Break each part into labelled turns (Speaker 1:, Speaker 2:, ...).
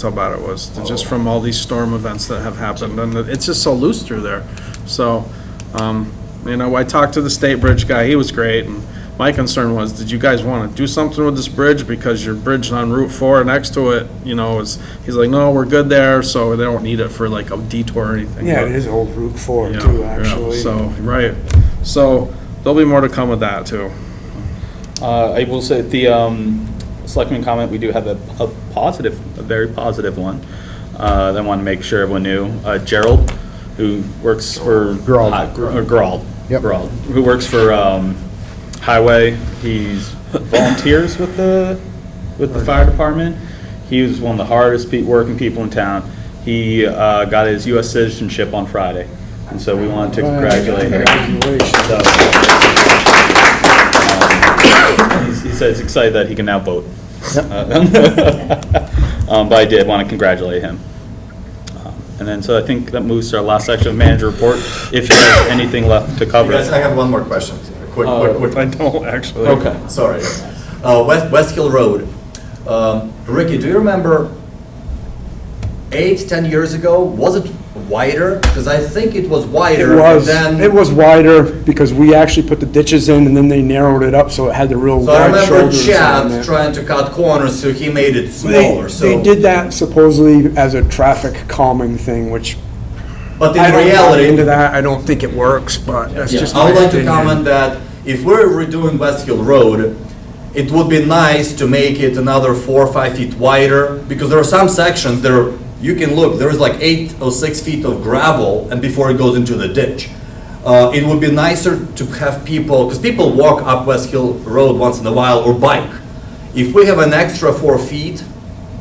Speaker 1: how bad it was, just from all these storm events that have happened, and it's just so loose through there. So, um, you know, I talked to the state bridge guy, he was great, and my concern was, did you guys want to do something with this bridge? Because your bridge on Route 4 next to it, you know, is, he's like, no, we're good there, so they don't need it for like a detour or anything.
Speaker 2: Yeah,
Speaker 1: But-
Speaker 2: it is old Route 4
Speaker 1: yeah,
Speaker 2: too,
Speaker 1: yeah,
Speaker 2: actually. Uh,
Speaker 1: So, right, so there'll be more to come with that too.
Speaker 3: Uh, I will say, the um, selectman comment, we do have a a positive, a very positive one uh, that I want to make sure everyone knew. Uh, Gerald, who works for.
Speaker 4: Gerald.
Speaker 3: Hi- Gr- or Gerald.
Speaker 4: Yep.
Speaker 3: Gerald, who works for um, Highway. He's volunteers with the, with the fire department. He was one of the hardest pe- working people in town. He uh, got his US citizenship on Friday, and so we wanted to congratulate him.
Speaker 2: Congratulations.
Speaker 3: So, um, he's- He says he's excited that he can now vote. Um, But I did want to congratulate him. Um, And then, so I think that moves to our last section of manager report, if you have anything left to cover.
Speaker 5: Guys, I have one more question, a quick, quick,
Speaker 1: I
Speaker 2: Uh,
Speaker 5: quick,
Speaker 1: don't actually.
Speaker 3: Okay.
Speaker 5: sorry. Uh, West, West Hill Road. Um, Ricky, do you remember eight, ten years ago, was it wider? Because I think it was
Speaker 2: It
Speaker 5: wider and
Speaker 2: was,
Speaker 5: then.
Speaker 2: it was wider because we actually put the ditches in and then they narrowed it up so it had the real
Speaker 5: So I
Speaker 2: wide
Speaker 5: remember
Speaker 2: shoulders on there.
Speaker 5: Chad trying to cut corners, so he made it
Speaker 2: They,
Speaker 5: smaller, so.
Speaker 2: they did that supposedly as a traffic calming thing, which
Speaker 5: But
Speaker 2: I
Speaker 5: in
Speaker 2: don't buy
Speaker 5: reality,
Speaker 2: into that. I don't think it works, but that's
Speaker 5: Yeah,
Speaker 2: just
Speaker 5: I
Speaker 2: my
Speaker 5: would like to
Speaker 2: opinion.
Speaker 5: comment that if we're redoing West Hill Road, it would be nice to make it another four or five feet wider, because there are some sections there, you can look, there is like eight or six feet of gravel, and before it goes into the ditch. Uh, it would be nicer to have people, because people walk up West Hill Road once in a while, or bike. If we have an extra four feet,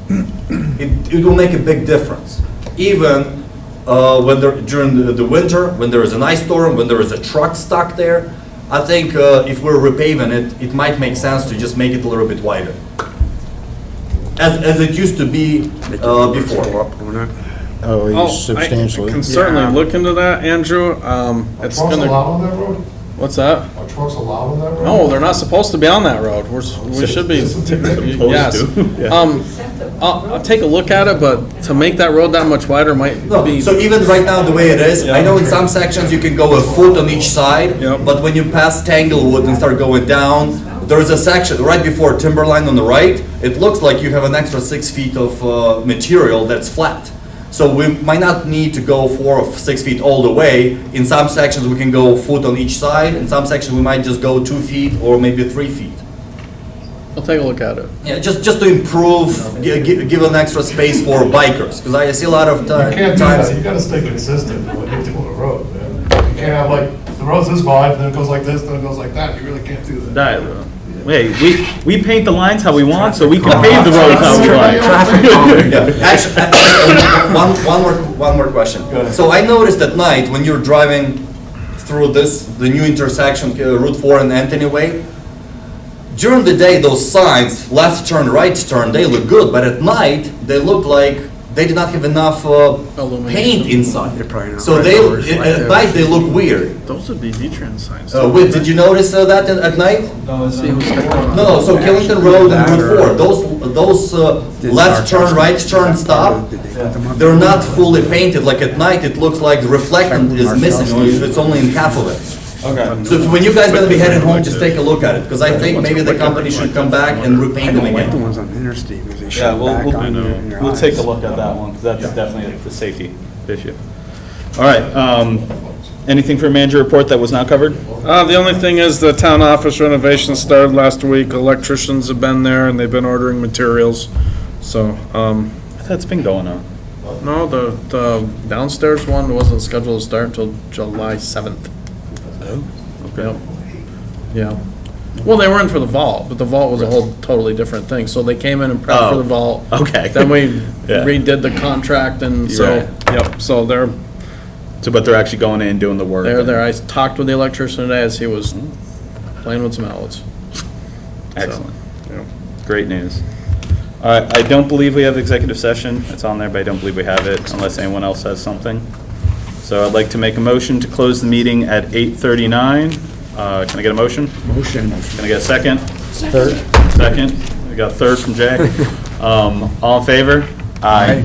Speaker 5: it, it will make a big difference. Even uh, when there, during the, the winter, when there is an ice storm, when there is a truck stuck there, I think uh, if we're repaving it, it might make sense to just make it a little bit wider. As, as it used to be uh, before.
Speaker 4: Oh,
Speaker 1: Oh,
Speaker 4: he's
Speaker 1: I can
Speaker 4: substantially.
Speaker 1: certainly
Speaker 2: Yeah.
Speaker 1: look into that, Andrew. Um,
Speaker 6: Are
Speaker 1: it's
Speaker 6: trucks
Speaker 1: gonna,
Speaker 6: allowed on that road?
Speaker 1: what's that?
Speaker 6: Are trucks allowed on that road?
Speaker 1: No, they're not supposed to be on that road. We're, s- we should be. Yes. Um, I'll, I'll take a look at it, but to make that road that much wider might
Speaker 5: No,
Speaker 1: be,
Speaker 5: so even right now, the way it is, I know in some sections you can go a foot on each side,
Speaker 1: Yeah.
Speaker 5: but when you pass Tanglewood and start going down, there is a section right before Timberline on the right. It looks like you have an extra six feet of uh, material that's flat. So we might not need to go four or six feet all the way. In some sections, we can go a foot on each side. In some sections, we might just go two feet or maybe three feet.
Speaker 1: I'll take a look at it.
Speaker 5: Yeah, just, just to improve, gi- gi- give an extra space for bikers, because I see a lot of ti-
Speaker 6: You
Speaker 5: times.
Speaker 6: can't do that, you gotta stay consistent when you're doing a road, man. You can't have like, the road's this wide, and then it goes like this, then it goes like that, you really can't do that.
Speaker 3: That, uh, Hey, we, we paint the lines how we want, so we can pave the roads how we want.
Speaker 5: Yeah, actually, actually, one, one more, one more question.
Speaker 6: ahead.
Speaker 5: So I noticed at night, when you're driving through this, the new intersection, uh, Route Four and Anthony Way, during the day, those signs, left turn, right turn, they look good, but at night, they look like they did not have enough, uh, paint
Speaker 1: Illumination.
Speaker 5: inside.
Speaker 2: They're probably not
Speaker 5: So they,
Speaker 2: colors like
Speaker 5: at
Speaker 2: that.
Speaker 5: night, they look weird.
Speaker 1: Those would be Z-Trans signs.
Speaker 5: Uh, Whit, did you notice uh, that in- at night? No, no, so Killington Road and Route Four, those, those uh, left turn, right turn stop, they're not fully painted, like at night, it looks like the reflectant is missing, or it's only in half of it.
Speaker 3: Okay.
Speaker 5: So if- when you guys gonna be headed home, just take a look at it, because I think maybe the company should come back and repaint them
Speaker 2: The
Speaker 5: again.
Speaker 2: ones on the interstate because they
Speaker 3: Yeah,
Speaker 2: shut
Speaker 3: we'll,
Speaker 2: back on you in
Speaker 3: we'll,
Speaker 2: your
Speaker 3: we'll
Speaker 2: eyes.
Speaker 3: take a look at that one, because that's definitely the safety issue. All right, um, anything for manager report that was not covered?
Speaker 1: Uh, the only thing is the town office renovation started last week. Electricians have been there and they've been ordering materials. So, um,
Speaker 3: That's been going on.
Speaker 1: no, the, the downstairs one wasn't scheduled to start until July seventh.
Speaker 3: Oh.
Speaker 1: Yep. Yeah. Well, they were in for the vault, but the vault was a whole totally different thing. So they came in and prepped for
Speaker 3: Oh,
Speaker 1: the vault.
Speaker 3: okay.
Speaker 1: Then we
Speaker 3: Yeah.
Speaker 1: redid the contract and so, yep, so they're,
Speaker 3: So, but they're actually going in and doing the work.
Speaker 1: they're there. I talked with the electrician today as he was playing with some outlets.
Speaker 3: Excellent.
Speaker 1: Yeah.
Speaker 3: Great news. All right, I don't believe we have executive session. It's on there, but I don't believe we have it unless anyone else has something. So I'd like to make a motion to close the meeting at 8:39. Uh, Can I get a motion?
Speaker 2: Motion.
Speaker 3: Can I get a second?
Speaker 4: Third.
Speaker 3: Second. We got third from Jack. Um, All in favor? Aye.